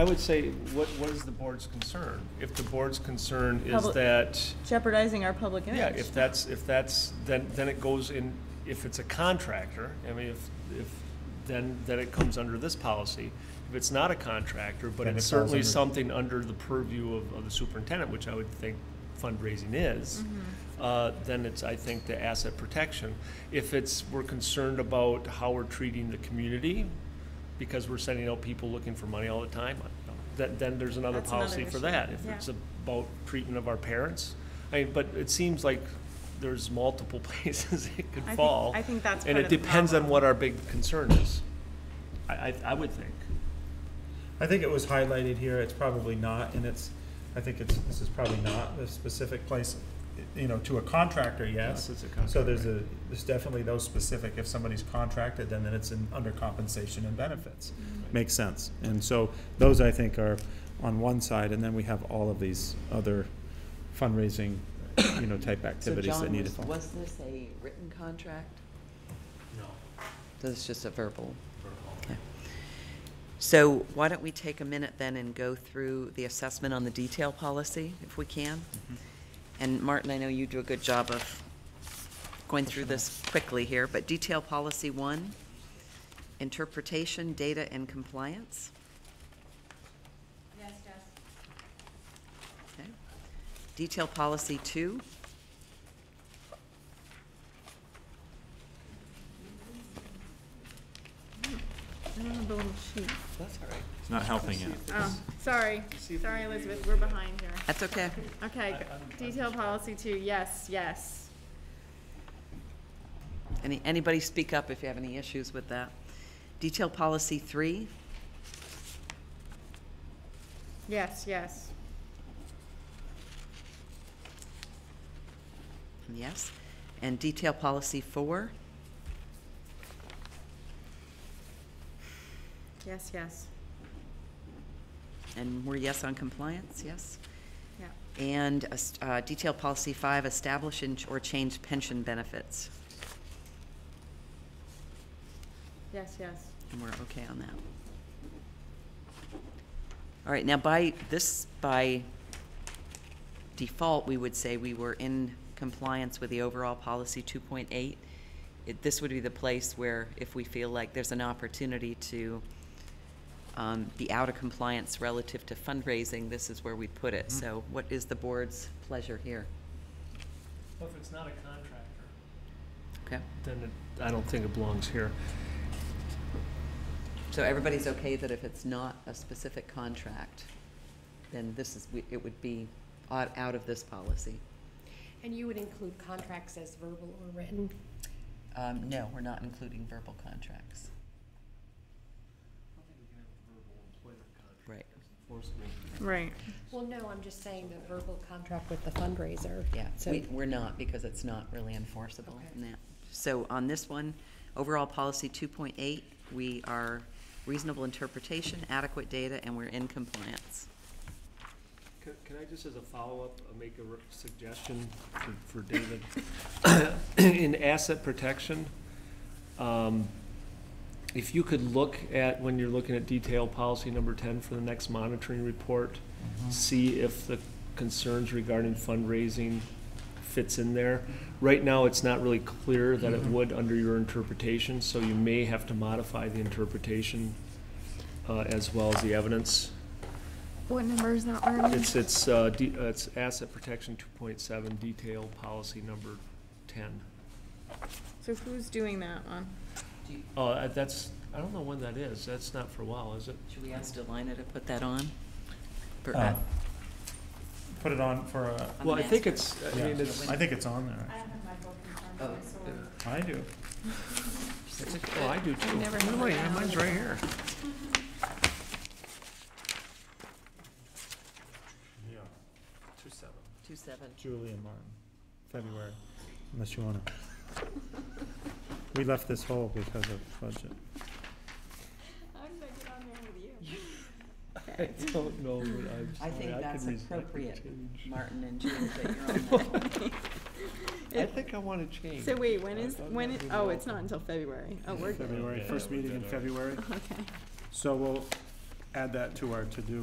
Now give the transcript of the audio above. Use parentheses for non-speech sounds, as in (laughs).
I would say, what, what is the board's concern? If the board's concern is Public- that, jeopardizing our public image. yeah, if that's, if that's, then, then it goes in, if it's a contractor, I mean, if, if, then, then it comes under this policy. If it's not a contractor, but Then it's it falls certainly under- something under the purview of, of the superintendent, which I would think fundraising is, uh, then it's, I think, the asset protection. If it's, we're concerned about how we're treating the community, because we're sending out people looking for money all the time, then, then there's another That's another policy for issue, that. If yeah. it's about treatment of our parents, I mean, but it seems like there's multiple (laughs) places it could I think- fall. I think that's And part it of the depends on problem. what our big concern is, I, I, I would think. I think it was highlighted here, it's probably not, and it's, I think it's, this is probably not the specific place, you know, to a contractor, yes. it's a contract, So there's right. a, there's definitely those specific, if somebody's contracted, then then it's in, under compensation and benefits. Makes sense, and so those I think are on one side, and then we have all of these other fundraising, you know, type activities that need to. So John, was- was this a written contract? No. This is just a verbal? Okay. So why don't we take a minute then and go through the assessment on the detail policy, if we can? Mm-hmm. And Martin, I know you do a good job of going through this quickly here, but detail policy one, interpretation, data, and compliance? Yes, Jess. Detail policy two? I don't have the little sheet. That's all right. It's not helping it. Oh, sorry, sorry, Elizabeth, we're behind here. That's okay. Okay, detail policy two, yes, yes. Any, anybody speak up if you have any issues with that. Detail policy three, Yes, yes. yes. And detail policy four, Yes, yes. and we're yes on compliance, yes. Yeah. And uh, s- uh, detail policy five, establish and- or change pension benefits. Yes, yes. And we're okay on that. All right, now by, this, by default, we would say we were in compliance with the overall policy two point eight. It, this would be the place where if we feel like there's an opportunity to um, be out of compliance relative to fundraising, this is where we put it. So what is the board's pleasure here? Well, if it's not a contractor, Okay, then it, I don't think it belongs here. so everybody's okay that if it's not a specific contract, then this is, we- it would be out out of this policy? And you would include contracts as verbal or written? Um, no, we're not including verbal contracts. Right, Right. Well, no, I'm just saying the verbal contract with the fundraiser. yeah, So, we, we're not, because it's not really enforceable Okay. in that. So on this one, overall policy two point eight, we are reasonable interpretation, adequate data, and we're in compliance. Can, can I just as a follow-up, uh, make a re- suggestion for, for David? (coughs) In asset protection, um, if you could look at, when you're looking at detail policy number ten for the next monitoring report, see if the concerns regarding fundraising fits in there. Right now, it's not really clear that it would under your interpretation, so you may have to modify the interpretation, uh, as well as the evidence. What number is that, Arlene? It's, it's, uh, de- uh, it's asset protection two point seven, detail policy number ten. So who's doing that one? Oh, uh, that's, I don't know when that is, that's not for a while, is it? Should we ask Delina to put that on? For- Uh, Put it on for a, On the Well, I think master. it's, I mean, it's, I think it's on there. Oh, I do. oh, I do too. never No, had wait, that. Mine's right here. Yeah, two seven. Two seven. Julie and Martin, February, unless you wanna. We left this hole because of budget. How did I get on there with you? (laughs) I don't know, but I'm I sorry, think could that's res- I could appropriate, change. (laughs) Martin and Julie, that you're on that. (laughs) I think I wanna change. So wait, when is, I'm when, not i- really oh, it's welcome. (laughs) not until February. Oh, we're good. February, Yeah, first we'll meeting do in that. February, Okay. so we'll, add that to our to-do